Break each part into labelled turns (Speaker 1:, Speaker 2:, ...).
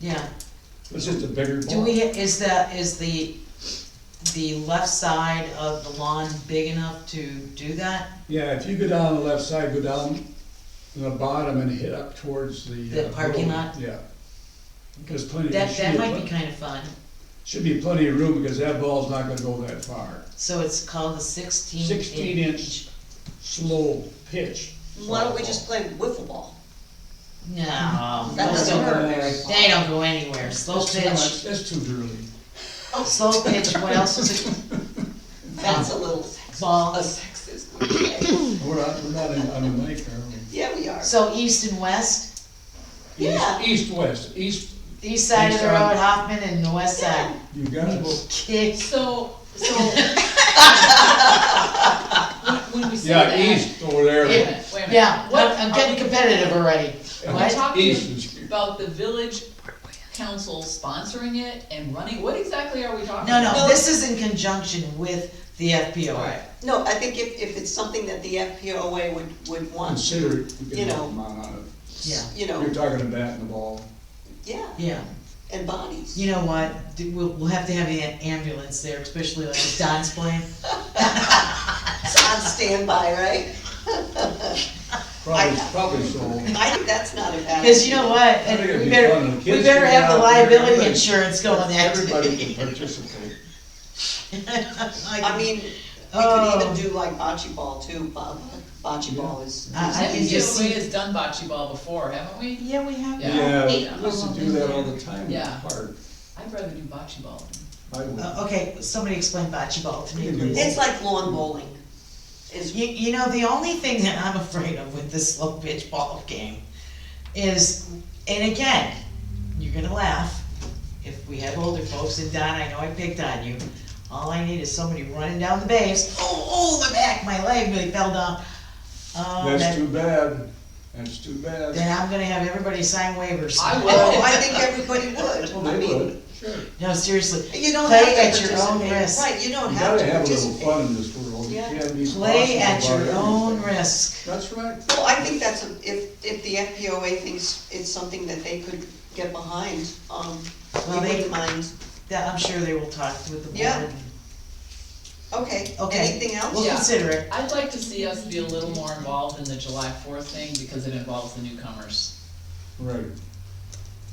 Speaker 1: yeah.
Speaker 2: It's just a bigger
Speaker 1: Do
Speaker 2: ball.
Speaker 1: we, is the, is the, the left side of the lawn big enough to do that?
Speaker 2: Yeah, if you go down the left side, go down to the bottom and hit up towards the.
Speaker 1: The
Speaker 2: uh,
Speaker 1: parking
Speaker 2: road.
Speaker 1: lot?
Speaker 2: Yeah. There's plenty, there
Speaker 1: That,
Speaker 2: should
Speaker 1: that
Speaker 2: be,
Speaker 1: might be
Speaker 2: pl-
Speaker 1: kinda fun.
Speaker 2: should be plenty of room because that ball's not gonna go that far.
Speaker 1: So it's called the sixteen inch.
Speaker 2: 16 inch. Slow pitch.
Speaker 3: Why don't we just play wiffle ball?
Speaker 1: No,
Speaker 3: That
Speaker 1: those
Speaker 3: doesn't
Speaker 1: don't,
Speaker 3: work.
Speaker 1: they don't go anywhere. Slow
Speaker 2: That's too
Speaker 1: pitch,
Speaker 2: much, that's too girly.
Speaker 1: slow pitch, what else is it?
Speaker 3: That's a little sexist.
Speaker 1: Ball.
Speaker 3: A sexist word, okay.
Speaker 2: We're not, we're not in, on the lake, are we?
Speaker 3: Yeah, we are.
Speaker 1: So east and west,
Speaker 3: Yeah.
Speaker 2: East, west, east,
Speaker 1: the east side of the
Speaker 2: East side.
Speaker 1: road, Hoffman, and the west side.
Speaker 2: you got it.
Speaker 1: Kick,
Speaker 4: So, so. When when we say
Speaker 2: Yeah,
Speaker 4: that.
Speaker 2: east over
Speaker 4: Wait a
Speaker 2: there,
Speaker 4: minute, wait a minute.
Speaker 1: yeah, what, I'm
Speaker 4: Are
Speaker 1: getting
Speaker 4: we-
Speaker 1: competitive already.
Speaker 4: Are we
Speaker 1: What?
Speaker 2: east
Speaker 4: talking
Speaker 2: is.
Speaker 4: about the village council sponsoring it and running, what exactly are we talking
Speaker 1: No,
Speaker 4: about?
Speaker 1: no,
Speaker 3: No.
Speaker 1: this is in conjunction with the FPO.
Speaker 4: Alright,
Speaker 3: No, I think if, if it's something that the FPOA would, would want,
Speaker 2: Consider it, you
Speaker 3: You
Speaker 2: can help
Speaker 3: know.
Speaker 2: them out on it.
Speaker 1: Yeah,
Speaker 3: you know,
Speaker 2: You're talking about in the ball.
Speaker 3: yeah,
Speaker 1: yeah.
Speaker 3: and bodies.
Speaker 1: You know what? Do- We'll, we'll have to have an ambulance there, especially like if Don's playing.
Speaker 3: It's on standby, right?
Speaker 2: Probably, probably so.
Speaker 3: I think that's not a bad.
Speaker 1: Cause you know what?
Speaker 2: I think it'd
Speaker 1: We
Speaker 2: be
Speaker 1: better,
Speaker 2: fun. The
Speaker 1: we
Speaker 2: kids
Speaker 1: better
Speaker 2: can
Speaker 1: have the
Speaker 2: get out there,
Speaker 1: liability
Speaker 2: everybody-
Speaker 1: insurance go on that.
Speaker 2: Everybody can participate.
Speaker 3: I mean, we could even do like bocce ball too, Bob. Bocce ball is.
Speaker 1: I- I
Speaker 4: I
Speaker 1: can
Speaker 4: think
Speaker 1: just
Speaker 4: UCLA
Speaker 1: see-
Speaker 4: has done bocce ball before, haven't we?
Speaker 1: Yeah, we have.
Speaker 4: Yeah.
Speaker 2: Yeah, we
Speaker 4: Yeah.
Speaker 2: used to do that all the time in the
Speaker 4: Yeah.
Speaker 2: park.
Speaker 4: I'd rather do bocce ball.
Speaker 2: I would.
Speaker 1: Uh, okay, somebody explain bocce ball to me,
Speaker 2: You do.
Speaker 1: please.
Speaker 3: It's like lawn bowling. Is,
Speaker 1: You, you know, the only thing that I'm afraid of with this slow pitch ball game is, and again, you're gonna laugh, if we have older folks, and Don, I know I picked on you, all I need is somebody running down the base, oh, oh, the back, my leg really fell down. Um,
Speaker 2: That's
Speaker 1: that-
Speaker 2: too bad, that's too bad.
Speaker 1: then I'm gonna have everybody sign waivers.
Speaker 4: I will.
Speaker 3: oh, I think everybody would. I
Speaker 2: They
Speaker 3: mean,
Speaker 2: would, sure. You
Speaker 1: No, seriously,
Speaker 3: You don't
Speaker 1: Play
Speaker 3: have to
Speaker 1: at your own
Speaker 3: participate.
Speaker 1: risk.
Speaker 3: Right, you don't
Speaker 2: gotta
Speaker 3: have to
Speaker 2: have a little
Speaker 3: participate.
Speaker 2: fun in this world, you
Speaker 3: Yeah.
Speaker 2: can't be.
Speaker 1: play
Speaker 2: bossy
Speaker 1: at
Speaker 2: about
Speaker 1: your own
Speaker 2: everything.
Speaker 1: risk.
Speaker 2: That's right.
Speaker 3: Well, I think that's, a- if, if the FPOA thinks it's something that they could get behind, um, we
Speaker 1: Well, they-
Speaker 3: wouldn't mind.
Speaker 1: That, I'm sure they will talk with the board.
Speaker 3: Yeah. Okay,
Speaker 1: Okay.
Speaker 3: anything else?
Speaker 1: We'll
Speaker 4: Yeah.
Speaker 1: consider it.
Speaker 4: I'd like to see us be a little more involved in the July fourth thing because it involves the newcomers.
Speaker 2: Right.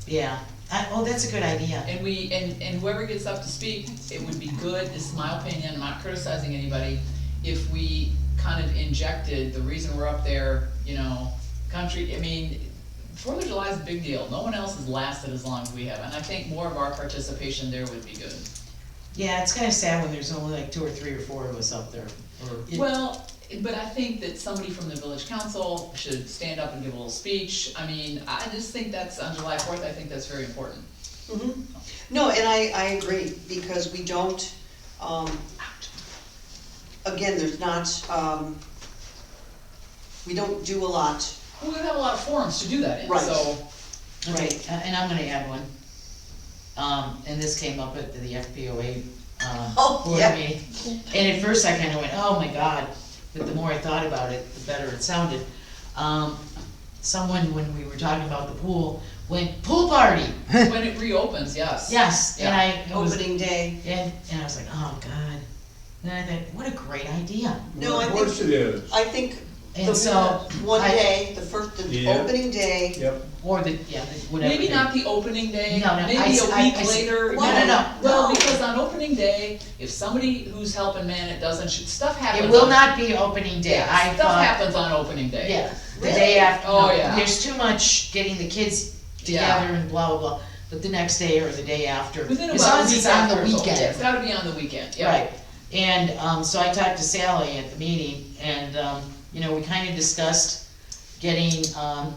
Speaker 1: Yeah, I, oh, that's a good idea.
Speaker 4: And we, and, and whoever gets up to speak, it would be good, this is my opinion, I'm not criticizing anybody, if we kind of injected the reason we're up there, you know, country, I mean, Fourth of July is a big deal, no one else has lasted as long as we have, and I think more of our participation there would be good.
Speaker 1: Yeah, it's kinda sad when there's only like two or three or four of us up there. It-
Speaker 4: Well, but I think that somebody from the village council should stand up and give a little speech, I mean, I just think that's, on July fourth, I think that's very important.
Speaker 3: Mhm. No, and I, I agree, because we don't, um, again, there's not, um, we don't do a lot.
Speaker 4: We would have a lot of forums to do that in,
Speaker 3: Right.
Speaker 4: so.
Speaker 1: Okay, uh, and I'm gonna add one. Um, and this came up at the FPOA,
Speaker 3: Oh,
Speaker 1: um, board
Speaker 3: yeah.
Speaker 1: meeting. And at first I kinda went, oh my god, but the more I thought about it, the better it sounded. Um, someone, when we were talking about the pool, went, pool party,
Speaker 4: When it reopens, yes.
Speaker 1: yes, and I, it was,
Speaker 3: Opening day,
Speaker 1: and, and I was like, oh god. And I thought, what a great idea.
Speaker 3: No,
Speaker 2: Well,
Speaker 3: I
Speaker 2: Of
Speaker 3: think-
Speaker 2: course it is,
Speaker 3: I think
Speaker 1: And
Speaker 3: the
Speaker 1: so,
Speaker 3: one
Speaker 1: I-
Speaker 3: day, the first, the
Speaker 2: Yeah.
Speaker 3: opening day,
Speaker 2: yep.
Speaker 1: or the, yeah, the- whatever.
Speaker 4: Maybe
Speaker 1: it
Speaker 4: not the opening day,
Speaker 1: No, no,
Speaker 4: maybe
Speaker 1: I-
Speaker 4: a
Speaker 1: I- I
Speaker 4: week
Speaker 1: see.
Speaker 4: later.
Speaker 1: No, no, no,
Speaker 4: Well,
Speaker 1: no.
Speaker 4: because on opening day, if somebody who's helping man it doesn't, shoot- stuff happens.
Speaker 1: It will
Speaker 4: on-
Speaker 1: not be opening day,
Speaker 4: Yeah,
Speaker 1: I
Speaker 4: Stuff
Speaker 1: thought,
Speaker 4: happens on opening day.
Speaker 1: yeah, the
Speaker 3: Really?
Speaker 1: day after,
Speaker 4: Oh,
Speaker 1: no,
Speaker 4: yeah.
Speaker 1: there's too much getting the kids
Speaker 4: Yeah.
Speaker 1: together and blah, blah, blah, but the next day or the day after,
Speaker 4: Within
Speaker 1: as
Speaker 4: about
Speaker 1: long
Speaker 4: a
Speaker 1: as
Speaker 4: week
Speaker 1: it's on the
Speaker 4: after it's open. It's
Speaker 1: weekend,
Speaker 4: gotta be on the weekend, yeah.
Speaker 1: right? And, um, so I talked to Sally at the meeting, and, um, you know, we kinda discussed getting, um,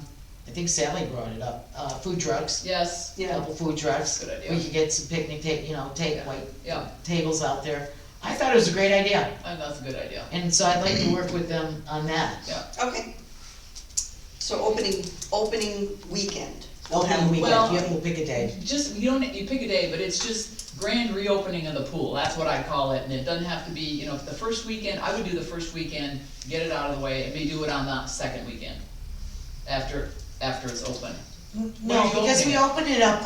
Speaker 1: I think Sally brought it up, uh, food trucks,
Speaker 4: Yes,
Speaker 1: a
Speaker 3: yeah,
Speaker 1: couple food trucks.
Speaker 4: Good idea.
Speaker 1: We could get some picnic ta, you know, take, like,
Speaker 4: yeah,
Speaker 1: tables out there. I thought it was a great idea,
Speaker 4: I think that's a good idea.
Speaker 1: and so I'd like to work with them on that.
Speaker 3: okay. So opening, opening weekend. We'll have-
Speaker 1: Opening
Speaker 4: Well-
Speaker 1: weekend, yeah, we'll pick a day.
Speaker 4: Just, you don't, you pick a day, but it's just grand reopening of the pool, that's what I call it, and it doesn't have to be, you know, if the first weekend, I would do the first weekend, get it out of the way, and maybe do it on the second weekend, after, after it's open.
Speaker 1: No,
Speaker 4: you
Speaker 1: because we
Speaker 4: opening it?
Speaker 1: opened it up